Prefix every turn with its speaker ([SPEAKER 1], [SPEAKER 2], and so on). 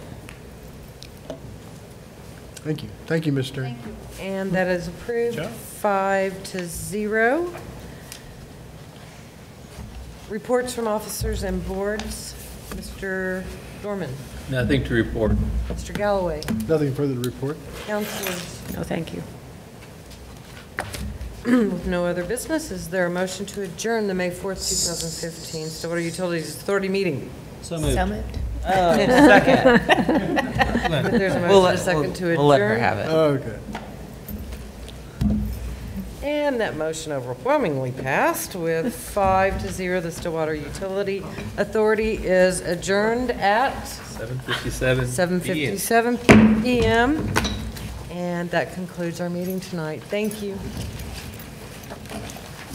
[SPEAKER 1] Thank you. Thank you, Ms. Stern.
[SPEAKER 2] And that is approved,
[SPEAKER 1] Good job.
[SPEAKER 2] five to zero. Reports from officers and boards, Mr. Dorman,
[SPEAKER 3] Nothing to report.
[SPEAKER 2] Mr. Galloway,
[SPEAKER 1] Nothing further to report.
[SPEAKER 2] councilors.
[SPEAKER 4] No, thank you.
[SPEAKER 2] With no other business, is there a motion to adjourn the May 4th, 2015 Stillwater Utilities Authority meeting?
[SPEAKER 3] So
[SPEAKER 4] So moved.
[SPEAKER 5] Oh,
[SPEAKER 2] If There's a
[SPEAKER 5] We'll
[SPEAKER 2] motion,
[SPEAKER 5] let-
[SPEAKER 2] a second to adjourn.
[SPEAKER 5] We'll let her have it.
[SPEAKER 1] Okay.
[SPEAKER 2] And that motion overwhelmingly passed with five to zero. The Stillwater Utility Authority is adjourned at
[SPEAKER 3] 7:57.
[SPEAKER 2] 7:57 PM. And that concludes our meeting tonight. Thank you.